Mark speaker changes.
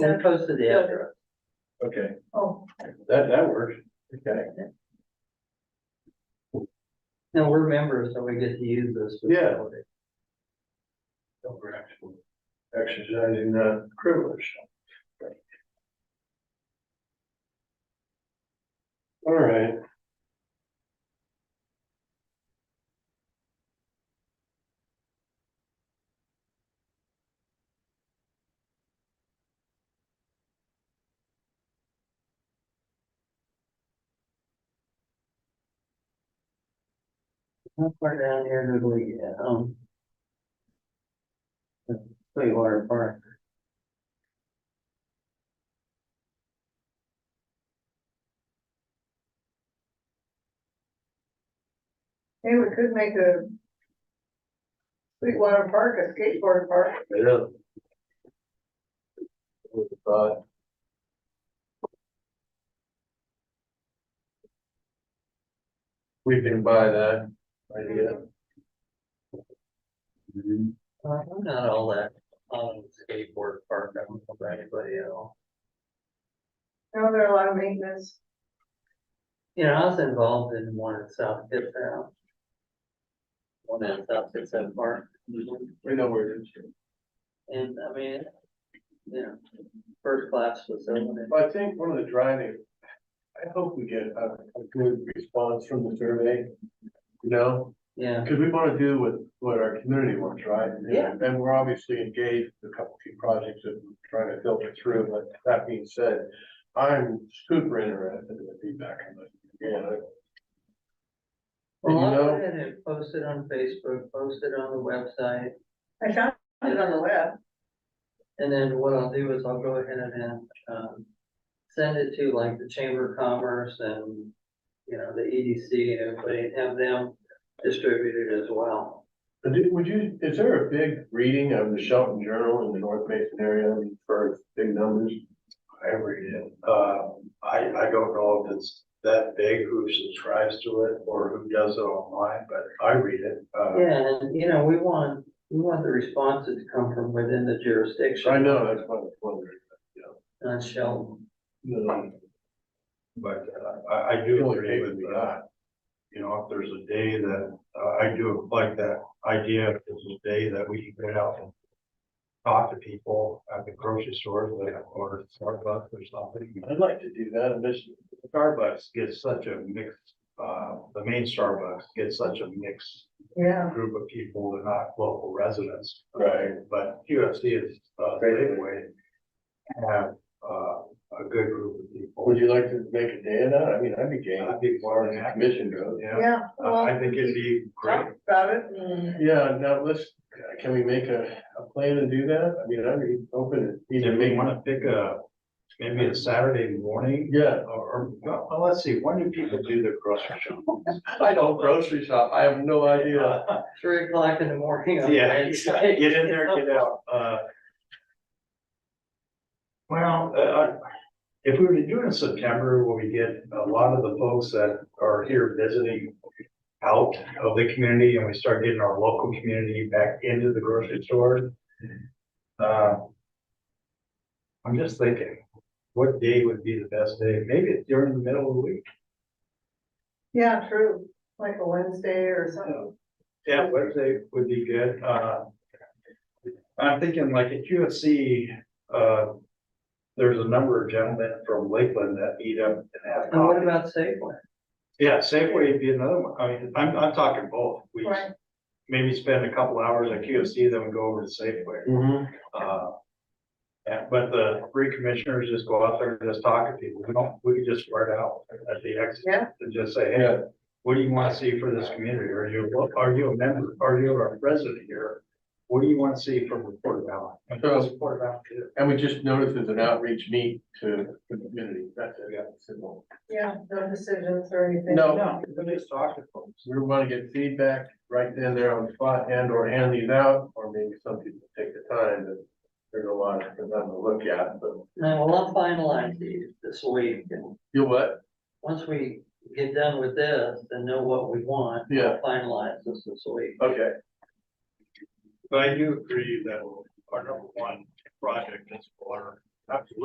Speaker 1: Then close to the address.
Speaker 2: Okay,
Speaker 3: Oh,
Speaker 2: that, that works. Okay,
Speaker 1: No, we're members, so we get to use this.
Speaker 2: Yeah. so we're actually exercising the uh, privilege. All right.
Speaker 1: How far down here did we get, um? the Sweetwater Park.
Speaker 3: hey, we could make a Sweetwater Park, a skateboard park.
Speaker 2: Yeah. With the thought. We can buy that idea.
Speaker 1: Uh, I'm not all that on skateboard park, I don't know about anybody at all.
Speaker 3: You know, there are a lot of maintenance.
Speaker 1: You know, I was involved in one in South Pittsburgh. One in South Pittsburgh Park.
Speaker 2: We know where it is.
Speaker 1: And I mean, you know, first class facility.
Speaker 2: Well, I think one of the driving, I hope we get a, a good response from the survey. You know,
Speaker 1: Yeah,
Speaker 2: because we want to do what, what our community wants, right? And-
Speaker 1: Yeah.
Speaker 2: And we're obviously engaged with a couple few projects that we're trying to filter through, but that being said, I'm super interested in the feedback. on this. Yeah,
Speaker 1: well, I
Speaker 2: You know-
Speaker 1: went ahead and posted on Facebook, posted on the website.
Speaker 3: I found it on the web.
Speaker 1: And then what I'll do is I'll go ahead and, then, um, send it to like the Chamber of Commerce and, you know, the EDC and everybody, and have them distribute it as well.
Speaker 2: And do- would you, is there a big reading of the Shelton Journal in the North Mason area for big numbers?
Speaker 4: I read it. Uh, I, I don't know if it's that big who subscribes to it or who does it online, but I read it. Uh,
Speaker 1: Yeah, and you know, we want, we want the responses to come from within the jurisdiction.
Speaker 2: I know, that's what I was wondering.
Speaker 1: Not Sheldon.
Speaker 2: You know,
Speaker 4: But uh, I, I
Speaker 2: I
Speaker 4: do
Speaker 2: feel like
Speaker 4: agree
Speaker 2: they
Speaker 4: with
Speaker 2: would be
Speaker 4: that. You know, if there's a day that, uh, I do like that idea, if there's a day that we can get out and talk to people at the grocery store or Starbucks or something.
Speaker 2: I'd like to do that, and this,
Speaker 4: Starbucks gets such a mix, uh, the main Starbucks gets such a mix
Speaker 3: Yeah,
Speaker 4: group of people, they're not local residents.
Speaker 2: right,
Speaker 4: But QFC is, uh,
Speaker 2: Great.
Speaker 4: anyway, have, uh, a good group of people.
Speaker 2: would you like to make a day of that? I mean, I'd be game.
Speaker 4: I'd be more than happy.
Speaker 2: Mission goes.
Speaker 4: Yeah, Uh,
Speaker 3: yeah. well,
Speaker 4: I I think it'd be great.
Speaker 3: Talk about it and
Speaker 2: Yeah, now let's, can we make a, a plan to do that? I mean, I'd be open to either
Speaker 4: If we
Speaker 2: make one.
Speaker 4: wanna pick a, maybe a Saturday morning,
Speaker 2: Yeah,
Speaker 4: or, or, well, let's see, when do people do their grocery shopping?
Speaker 2: I don't grocery shop, I have no idea.
Speaker 1: Three o'clock in the morning. on
Speaker 4: Yeah,
Speaker 1: Wednesday.
Speaker 4: get in there, get out, uh. Well, uh, I- if we were to do it in September, where we get a lot of the folks that are here visiting out of the community, and we start getting our local community back into the grocery store. Uh. I'm just thinking, what day would be the best day? Maybe it's during the middle of the week.
Speaker 3: Yeah, true, like a Wednesday or something.
Speaker 4: Yeah, Wednesday would be good, uh. I'm thinking like at UFC, uh. There's a number of gentlemen from Lakeland that meet up and have
Speaker 1: And what
Speaker 4: coffee.
Speaker 1: about Safeway?
Speaker 4: Yeah, Safeway would be another one, I mean, I'm, I'm talking both, we
Speaker 3: Right.
Speaker 4: maybe spend a couple hours at QFC, then we go over to Safeway,
Speaker 2: Mm-hmm.
Speaker 4: uh. And, but the three commissioners just go out there and just talk to people, we don't, we could just start out at the exit.
Speaker 3: Yeah.
Speaker 4: And just say, hey,
Speaker 2: Yeah,
Speaker 4: what do you want to see for this community? Are you, are you a member, are you a resident here? What do you want to see from the Port of Allen? And
Speaker 2: So-
Speaker 4: what's Port of Allen do?
Speaker 2: and we just noticed there's an outreach meet to the community, that's it. Simple.
Speaker 3: Yeah, no decisions or anything.
Speaker 2: No.
Speaker 4: No, we just talk to folks.
Speaker 2: We want to get feedback right then there on the spot and or hand these out, or maybe some people take the time, but there's a lot for them to look at, but
Speaker 1: No, well, I'll finalize these this week and
Speaker 2: you what?
Speaker 1: once we get done with this and know what we want. we'll
Speaker 2: Yeah.
Speaker 1: Finalize this this week.
Speaker 2: Okay.
Speaker 4: But I do agree that our number one project is water Absolutely.